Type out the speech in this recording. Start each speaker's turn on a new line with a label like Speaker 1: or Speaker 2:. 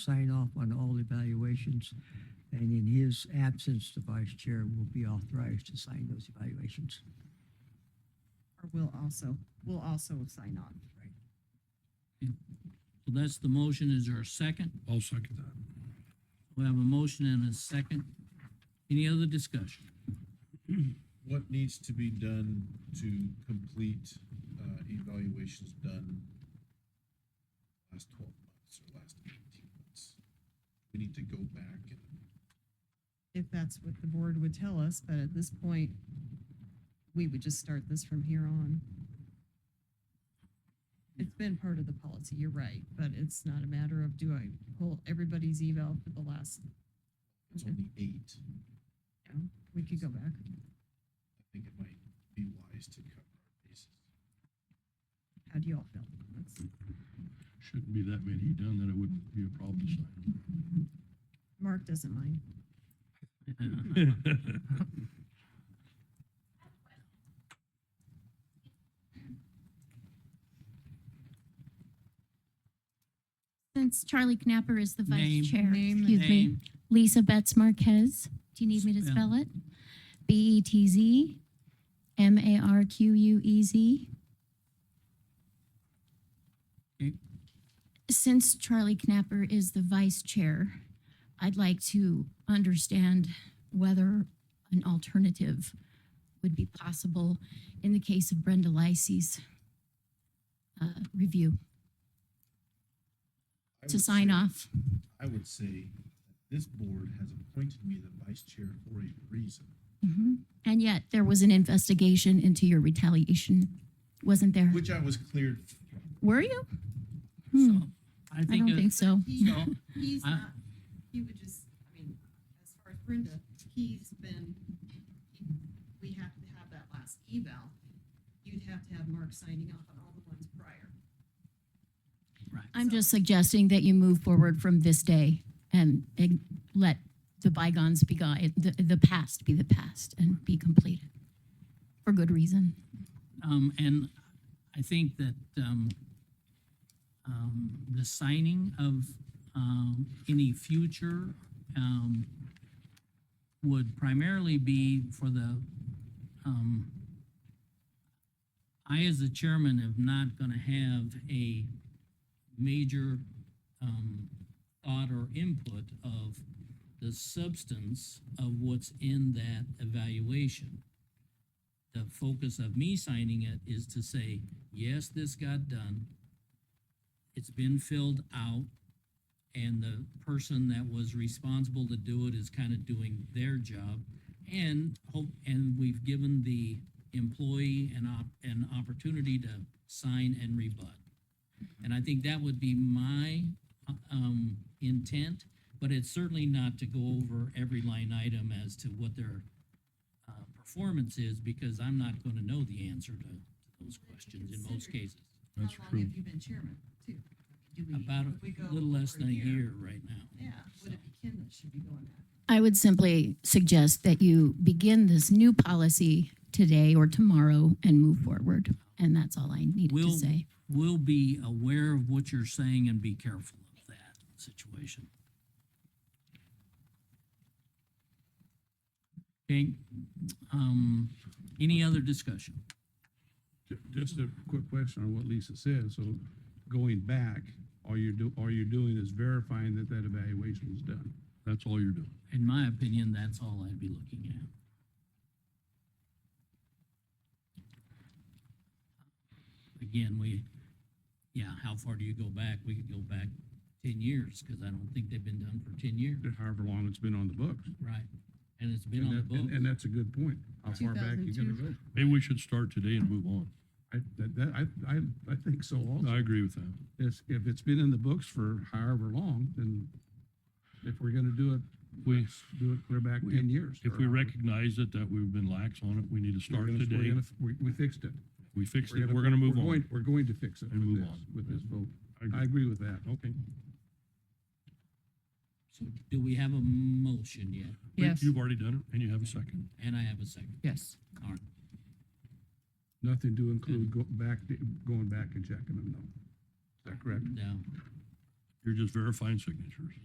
Speaker 1: sign off on all evaluations. And in his absence, the vice chair will be authorized to sign those evaluations.
Speaker 2: Or will also, will also sign on.
Speaker 3: So that's the motion. Is there a second?
Speaker 4: I'll second that.
Speaker 3: We have a motion and a second. Any other discussion?
Speaker 5: What needs to be done to complete, uh, evaluations done last twelve months or last eighteen months? We need to go back and,
Speaker 2: If that's what the board would tell us, but at this point, we would just start this from here on. It's been part of the policy, you're right, but it's not a matter of do I pull everybody's eval for the last,
Speaker 5: it's only eight,
Speaker 2: you know, we could go back.
Speaker 5: I think it might be wise to cover our bases.
Speaker 2: How do y'all feel? That's-
Speaker 4: Shouldn't be that many done, then it wouldn't be a problem to sign.
Speaker 2: Mark doesn't mind.
Speaker 6: Since Charlie Knapper is the
Speaker 3: Name.
Speaker 6: vice chair,
Speaker 2: Name and
Speaker 6: excuse me,
Speaker 3: Name.
Speaker 6: Lisa Betts Marquez. Do you need me to
Speaker 3: Spell.
Speaker 6: spell it? B E T Z M A R Q U E Z.
Speaker 3: Okay.
Speaker 6: Since Charlie Knapper is the vice chair, I'd like to understand whether an alternative would be possible in the case of Brenda Lysy's uh, review
Speaker 5: I
Speaker 6: to
Speaker 5: would
Speaker 6: sign
Speaker 5: say-
Speaker 6: off.
Speaker 5: I would say that this board has appointed me the vice chair for a reason.
Speaker 6: Mhm. And yet there was an investigation into your retaliation, wasn't there?
Speaker 5: Which I was cleared,
Speaker 6: Were you? Hmm.
Speaker 3: So, I
Speaker 6: I
Speaker 3: think,
Speaker 6: don't think
Speaker 3: it-
Speaker 6: so.
Speaker 3: so,
Speaker 2: He's
Speaker 3: I-
Speaker 2: not, he would just, I mean, as far as Brenda, he's been, we have to have that last eval. You'd have to have Mark signing off on all the ones prior.
Speaker 3: right.
Speaker 6: I'm just suggesting that you move forward from this day and and let the bygones be, gone- the, the past be the past and be completed. For good reason.
Speaker 3: Um, and I think that, um, um, the signing of, um, any future, um, would primarily be for the, um, I as the chairman am not gonna have a major, um, thought or input of the substance of what's in that evaluation the focus of me signing it is to say, yes, this got done. It's been filled out. And the person that was responsible to do it is kind of doing their job. And hope, and we've given the employee an op, an opportunity to sign and rebut. And I think that would be my, uh, um, intent, but it's certainly not to go over every line item as to what their uh, performance is because I'm not going to know the answer to those questions in most cases.
Speaker 4: That's
Speaker 2: How long
Speaker 4: true.
Speaker 2: have you been chairman, too? Do we-
Speaker 3: About
Speaker 2: if we go
Speaker 3: a little less
Speaker 2: over
Speaker 3: than a year right now.
Speaker 2: Yeah, would it be Ken that should be going back?
Speaker 6: I would simply suggest that you begin this new policy today or tomorrow and move forward. And that's all I needed to
Speaker 3: Will-
Speaker 6: say.
Speaker 3: We'll be aware of what you're saying and be careful of that situation. Okay, um, any other discussion?
Speaker 7: Ju- Just a quick question on what Lisa said. So going back, all you're do, all you're doing is verifying that that evaluation was done.
Speaker 4: That's all you're doing.
Speaker 3: In my opinion, that's all I'd be looking at. Again, we, yeah, how far do you go back? We could go back ten years, because I don't think they've been done for ten years.
Speaker 7: However long it's been on the books.
Speaker 3: Right. And it's been
Speaker 7: And
Speaker 3: on the
Speaker 7: that- and-
Speaker 3: book.
Speaker 7: And that's a good point. How far back you gonna go?
Speaker 4: Maybe we should start today and move on.
Speaker 7: I, that, that, I, I, I think so also.
Speaker 4: I agree with that.
Speaker 7: If, if it's been in the books for however long, then if we're gonna do it, we do it clear back
Speaker 4: we-
Speaker 7: ten years.
Speaker 4: If
Speaker 7: or
Speaker 4: we
Speaker 7: however.
Speaker 4: recognize it, that we've been lax on it, we need to
Speaker 7: We're
Speaker 4: start
Speaker 7: gonna- we're
Speaker 4: today.
Speaker 7: gonna- We, we fixed it.
Speaker 4: We fixed it. We're gonna move
Speaker 7: we're
Speaker 4: on.
Speaker 7: going- We're going to fix it
Speaker 4: And
Speaker 7: with
Speaker 4: move
Speaker 7: this,
Speaker 4: on.
Speaker 7: with this vote.
Speaker 4: I agree.
Speaker 7: I agree with that.
Speaker 4: Okay.
Speaker 3: So Do we have a motion yet?
Speaker 4: Wait,
Speaker 8: Yes,
Speaker 4: You've already done it and you have a second.
Speaker 3: And I have a second.
Speaker 8: yes.
Speaker 3: All right.
Speaker 7: Nothing to include go back, going back and checking them though. Is that correct?
Speaker 3: Now,
Speaker 4: You're just verifying signatures.